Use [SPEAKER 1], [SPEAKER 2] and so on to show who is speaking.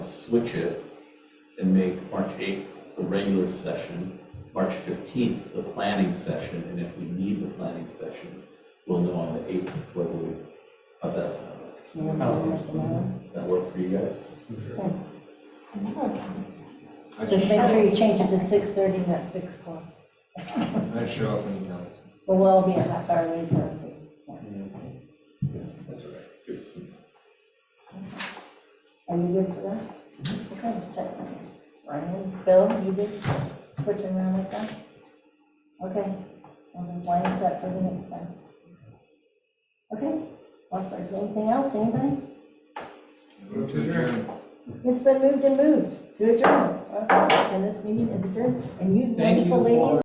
[SPEAKER 1] switch it and make March 8th the regular session, March 15th the planning session, and if we need the planning session, we'll know on the 8th whether we, how's that sound?
[SPEAKER 2] Oh,
[SPEAKER 1] Does that work for you guys?
[SPEAKER 2] Just make sure you change it to six thirty, not six o'clock.
[SPEAKER 3] I show up anytime.
[SPEAKER 2] Well, we'll be a half hour later.
[SPEAKER 1] That's all right. Good.
[SPEAKER 2] Are you good for that? Okay, that's fine. Ryan, Mm-hmm. Bill, you just switching around like that? Okay, and then why is that for the next time? Okay, well, if there's anything else, anybody?
[SPEAKER 3] Move to adjourn.
[SPEAKER 2] It's been moved and moved to adjourn. Okay, and this meeting is adjourned, and you
[SPEAKER 4] Thank you
[SPEAKER 2] wonderful ladies.
[SPEAKER 4] for-